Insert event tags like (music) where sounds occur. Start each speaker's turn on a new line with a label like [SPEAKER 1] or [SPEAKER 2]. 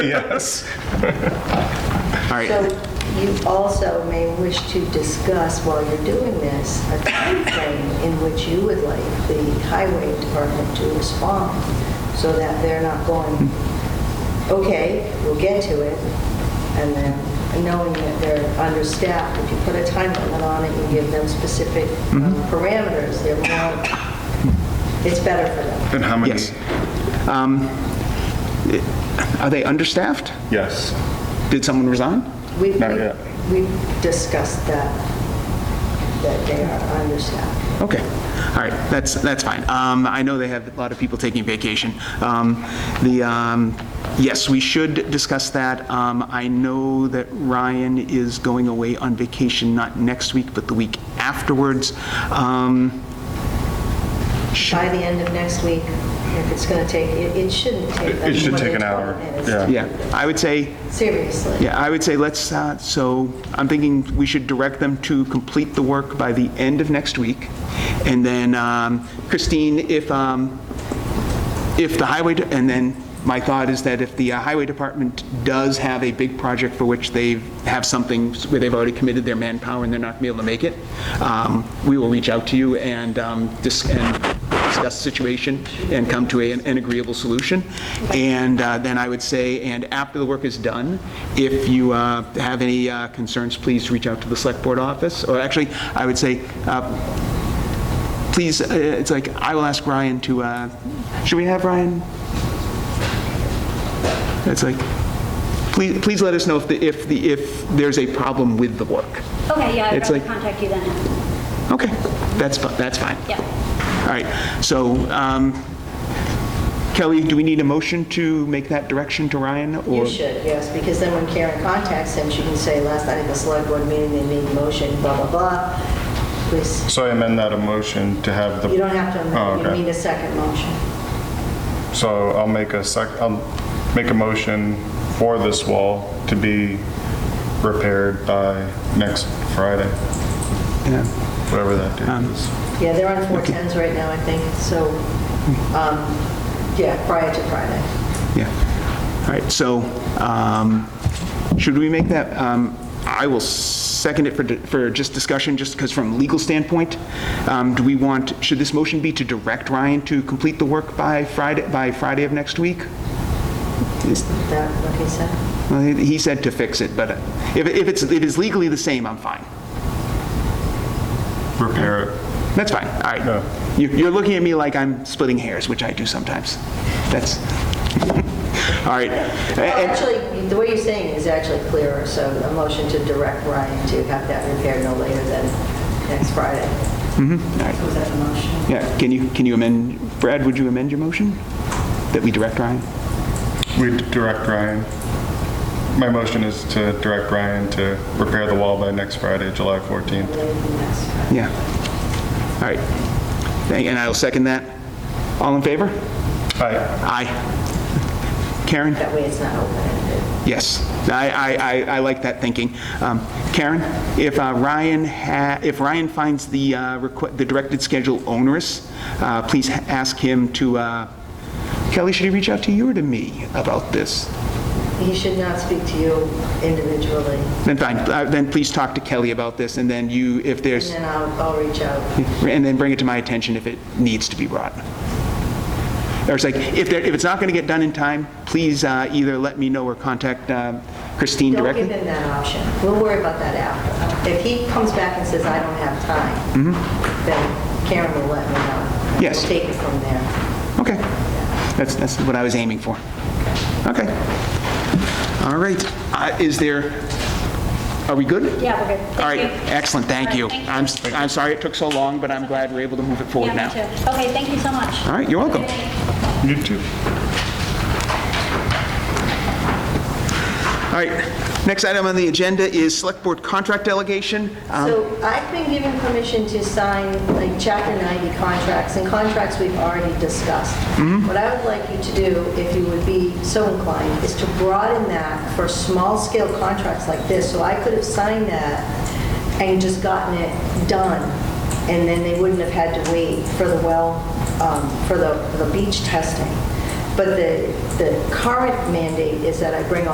[SPEAKER 1] Yes.
[SPEAKER 2] All
[SPEAKER 3] So
[SPEAKER 2] right,
[SPEAKER 3] you also may wish to discuss while you're doing this, a timeframe in which you would like the highway department to respond so that they're not going, okay, we'll get to it. And then knowing that they're understaffed, if you put a time limit on it, you give them specific um,
[SPEAKER 2] Mm-hmm.
[SPEAKER 3] parameters, they're more, it's better for them.
[SPEAKER 1] And how many?
[SPEAKER 2] yes. Um, Are they understaffed?
[SPEAKER 1] Yes.
[SPEAKER 2] Did someone resign?
[SPEAKER 3] We've-
[SPEAKER 1] Not yet.
[SPEAKER 3] We've discussed that, that they are understaffed.
[SPEAKER 2] Okay, all right, that's, that's fine. Um, I know they have a lot of people taking vacation. Um, The, um, yes, we should discuss that. Um, I know that Ryan is going away on vacation, not next week, but the week afterwards. Um,
[SPEAKER 3] by the end of next week, if it's going to take, it it shouldn't take.
[SPEAKER 1] It- it should
[SPEAKER 3] more
[SPEAKER 1] take
[SPEAKER 3] than
[SPEAKER 1] an hour,
[SPEAKER 3] 12 minutes.
[SPEAKER 1] yeah.
[SPEAKER 2] Yeah, I would say,
[SPEAKER 3] Seriously.
[SPEAKER 2] yeah, I would say let's, uh, so I'm thinking we should direct them to complete the work by the end of next week. And then um, Christine, if, um, if the highway, de- and then my thought is that if the uh, highway department does have a big project for which they have something where they've already committed their manpower and they're not gonna be able to make it, um, we will reach out to you and um, dis- and discuss the situation and come to a- an agreeable solution. And uh, then I would say, and after the work is done, if you uh, have any uh, concerns, please reach out to the select board office. Or actually, I would say, uh, please, uh, it's like, I will ask Ryan to, uh, should we have Ryan? It's like, please, please let us know if, the if, the if there's a problem with the work.
[SPEAKER 4] Okay, yeah, I'd
[SPEAKER 2] It's
[SPEAKER 4] rather
[SPEAKER 2] like-
[SPEAKER 4] contact you then.
[SPEAKER 2] Okay, that's, fi- that's fine.
[SPEAKER 4] Yeah.
[SPEAKER 2] All right, so um, Kelly, do we need a motion to make that direction to Ryan?
[SPEAKER 3] You
[SPEAKER 2] or
[SPEAKER 3] should, yes, because then when Karen contacts him, she can say, last night at the select board meeting, they made a motion, blah, blah, blah. Please,
[SPEAKER 1] So I amend that a motion to have the.
[SPEAKER 3] you don't have
[SPEAKER 1] Oh,
[SPEAKER 3] to, you need
[SPEAKER 1] okay.
[SPEAKER 3] a second motion.
[SPEAKER 1] So I'll make a sec, I'll make a motion for this wall to be repaired by next Friday,
[SPEAKER 2] Yeah.
[SPEAKER 1] whatever that date is.
[SPEAKER 3] Yeah, they're on 410s right now, I think, so, um, yeah, prior to Friday.
[SPEAKER 2] Yeah. All right, so um, should we make that, um, I will second it for, di- for just discussion, just because from a legal standpoint, um, do we want, should this motion be to direct Ryan to complete the work by Friday, by Friday of next week?
[SPEAKER 3] Is that what he said?
[SPEAKER 2] Well, He he said to fix it, but uh, if if it's, if it's legally the same, I'm fine.
[SPEAKER 1] Repair it.
[SPEAKER 2] That's fine, all
[SPEAKER 1] Yeah.
[SPEAKER 2] right. You- You're looking at me like I'm splitting hairs, which I do sometimes. That's, (laughs) all right.
[SPEAKER 3] Well,
[SPEAKER 2] And-
[SPEAKER 3] Actually, the way you're saying it is actually clearer, so a motion to direct Ryan to have that repaired no later than next Friday. Mm-hmm. Was that the motion?
[SPEAKER 2] Yeah, can you, can you amend, Brad, would you amend your motion? That we direct Ryan?
[SPEAKER 1] We direct Ryan. My motion is to direct Ryan to repair the wall by next Friday, July 14th.
[SPEAKER 3] Later than next Friday.
[SPEAKER 2] Yeah. All right. Thank- And I'll second that. All in favor?
[SPEAKER 1] Aye.
[SPEAKER 2] Aye. Karen?
[SPEAKER 3] That way it's not open-ended.
[SPEAKER 2] Yes. I, I, I- I like that thinking. Um, Karen, if uh, Ryan, ha- if Ryan finds the, uh, requ- the directed schedule onerous, uh, please ha- ask him to, uh, Kelly, should he reach out to you or to me about this?
[SPEAKER 3] He should not speak to you individually,
[SPEAKER 2] Then fine, Uh, then please talk to Kelly about this, and then you, if there's...
[SPEAKER 3] and then I'll, I'll reach out.
[SPEAKER 2] and then bring it to my attention if it needs to be brought. Or it's like, if there, if it's not going to get done in time, please uh, either let me know or contact um, Christine
[SPEAKER 3] Don't give
[SPEAKER 2] directly.
[SPEAKER 3] him that option. We'll worry about that after. If he comes back and says, I don't have time, then Karen will let me know. and
[SPEAKER 2] Mm-hmm. Yes.
[SPEAKER 3] We'll take it from there.
[SPEAKER 2] Okay, that's, that's what I was aiming for. Okay. All right, Uh, is there, are we good?
[SPEAKER 4] Yeah, we're good.
[SPEAKER 2] All right,
[SPEAKER 4] Thank you.
[SPEAKER 2] excellent, thank
[SPEAKER 4] All right,
[SPEAKER 2] you.
[SPEAKER 4] thank you.
[SPEAKER 2] I'm, s- I'm sorry it took so long, but I'm glad we're able to move it forward
[SPEAKER 4] Yeah,
[SPEAKER 2] now.
[SPEAKER 4] me too. Okay, thank you so much.
[SPEAKER 2] All right, you're welcome.
[SPEAKER 1] You too.
[SPEAKER 2] All right, next item on the agenda is Select Board Contract Delegation. Um,
[SPEAKER 3] So I've been given permission to sign like Chapter 90 contracts and contracts we've already discussed. What I would like you to do, if you would be so inclined, is to broaden that for small-scale contracts like this. So I could have signed that and just gotten it done, and then they wouldn't have had to wait for the well, um, for the the beach testing. But But the, the current mandate is that I bring all